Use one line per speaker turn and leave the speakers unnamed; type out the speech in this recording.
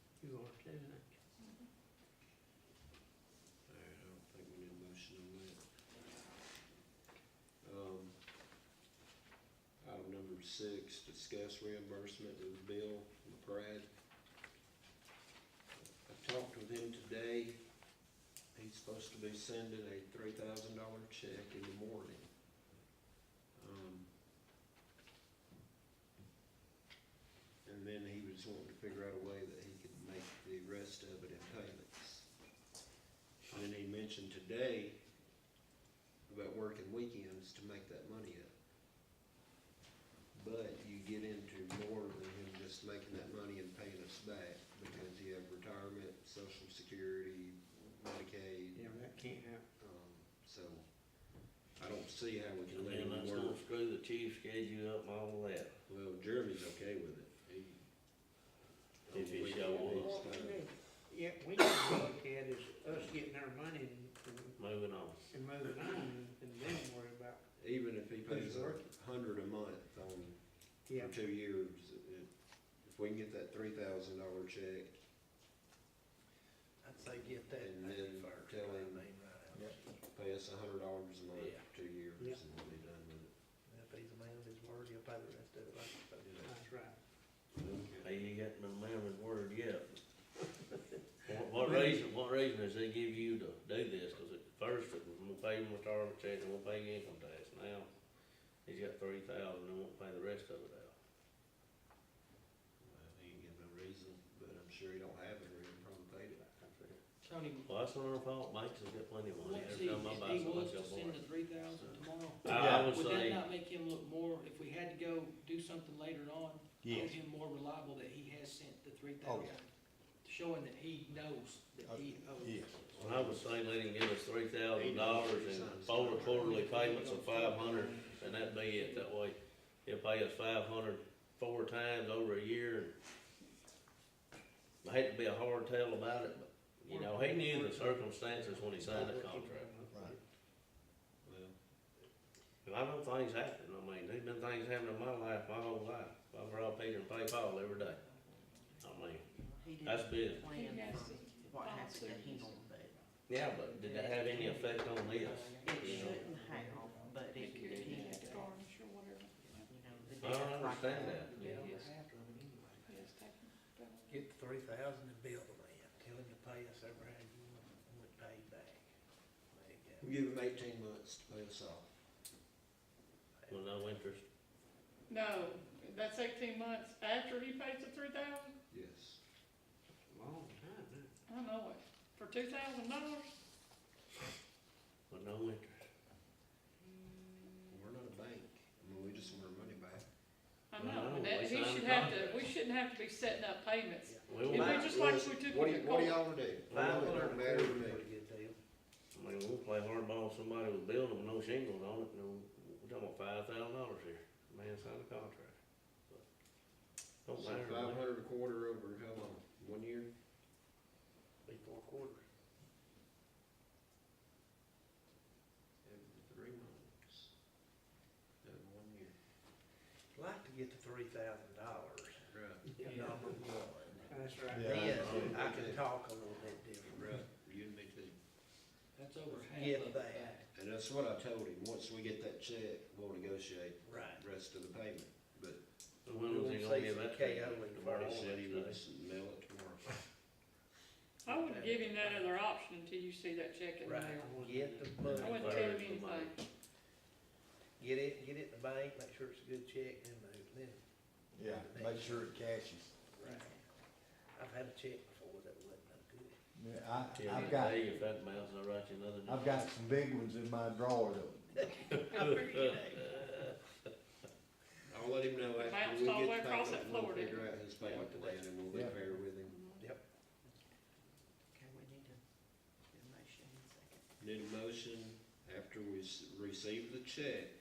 doesn't it?
Alright, I don't think we need a motion on that. Um, Item number six, discuss reimbursement with Bill McBride. I talked with him today. He's supposed to be sending a three thousand dollar check in the morning. Um, And then he was wanting to figure out a way that he could make the rest of it in payments. And then he mentioned today about working weekends to make that money up. But you get into more than him just making that money and paying us back, because you have retirement, social security, Medicaid,
Yeah, that can't happen.
um, so I don't see how we can
And
let
then
him
let's
work.
not screw the chief schedule up and all that.
Well, Jeremy's okay with it. He-
If he show
It's
up.
fine.
Yeah, we need to look at is us getting our money and-
Moving on.
and moving on and then worry about,
Even if he pays
Who's
a
working?
hundred a month on
yeah.
for two years, it- if we can get that three thousand dollar check,
I'd say get that
And
paid
then
first,
tell
I
him-
mean, right out.
pay us a hundred dollars a month
Yeah.
for two years, and
Yeah.
we'll be done with it.
And If he's a man of his word, he'll pay the rest of it like he's supposed to.
That's right.
Hey, you got no mammoth word yet. What, what reason, what reason does they give you to do this? Cause at first it was, we'll pay him retirement check and we'll pay you income tax. Now, he's got three thousand and won't pay the rest of it out.
Well, he ain't give no reason, but I'm sure he don't have it, or he'd probably paid it.
Tony,
Well, that's not our fault. Banks has got plenty of money.
let's
Every
see,
time I
if
buy
he was to
something, I
send
got
the
more.
three thousand tomorrow,
I would
would that
say,
not make him look more, if we had to go do something later on, make
Yes.
him more reliable that he has sent the three
Oh,
thousand? Showing that he knows that he
Uh,
owes.
Yes.
well, I would say let him give us three thousand dollars and four quarterly payments of five hundred And that'd be it, that way, he'll pay us five hundred four times over a year. I hate to be a hard tale about it, but, you know, he knew the circumstances when he signed the contract.
Right.
Well,
And I know things happen, I mean, there's been things happening in my life, my whole life, I rob Peter and pay Paul every day. I mean,
He didn't
that's business.
plan for what happened to him, but
Yeah, but did that have any effect on this?
it shouldn't have, but it did, you know,
or whatever.
the
I don't
death like
understand
that.
that.
Get over
Yes.
half of them anyway.
Yes, take them down.
Get the three thousand and bill the man, tell him to pay us over how you want, want paid back. There you
We give him eighteen months to pay us off.
go.
With no interest,
No, that's eighteen months after he pays the three thousand,
Yes.
Long time, huh?
I know it, for two thousand dollars,
with no interest.
We're not a bank. I mean, we just want our money back.
Well, I
I
know,
know, and that,
we
he
signed
should
a
have to,
contract.
we shouldn't have to be setting up payments.
We
If we
won't,
just like we took
What do
with
you-
the
What do
court.
y'all do? It
Five
don't matter to me.
Pretty good deal.
I mean, we'll play hardball with somebody with a building with no shingles on it, and we're talking about five thousand dollars here. Man signed a contract. But Don't matter, to
Five
me.
hundred a quarter over, how long? One year?
Be four quarters.
Every three months. Every one year.
Like to get the three thousand dollars,
Right,
number one.
That's right.
Yeah.
Then I can talk a little bit different.
right. You and me too.
That's over half
Get
of the
that.
back.
And that's what I told him. Once we get that check, we'll negotiate
Right.
the rest of the payment. But
But when was he
We'll
gonna
say
give
some
that to you?
KO and for
The
all
Marty
ball
said he
and
would
stuff.
mail it tomorrow.
I wouldn't give him that other option until you see that check in the mail.
Right, get the
I
money,
wouldn't tell him anything,
get it, get it in the bank, make sure it's a good check, then move, then.
Yeah, make sure it cashes.
Right. I've had a check before that wasn't no good.
Yeah, I,
Till
I've
that
got,
day, if that amounts, I'll write you another.
I've got some big ones in my drawer though.
I figured that.
I'll let him know after
Bounced
we
all the way
get the
across that
payment, we'll
floor, didn't
figure out his payment plan and we'll be
Yeah.
fair with him.
Yep,
Okay, we need a, a motion in a second.
Need a motion after we s- receive the check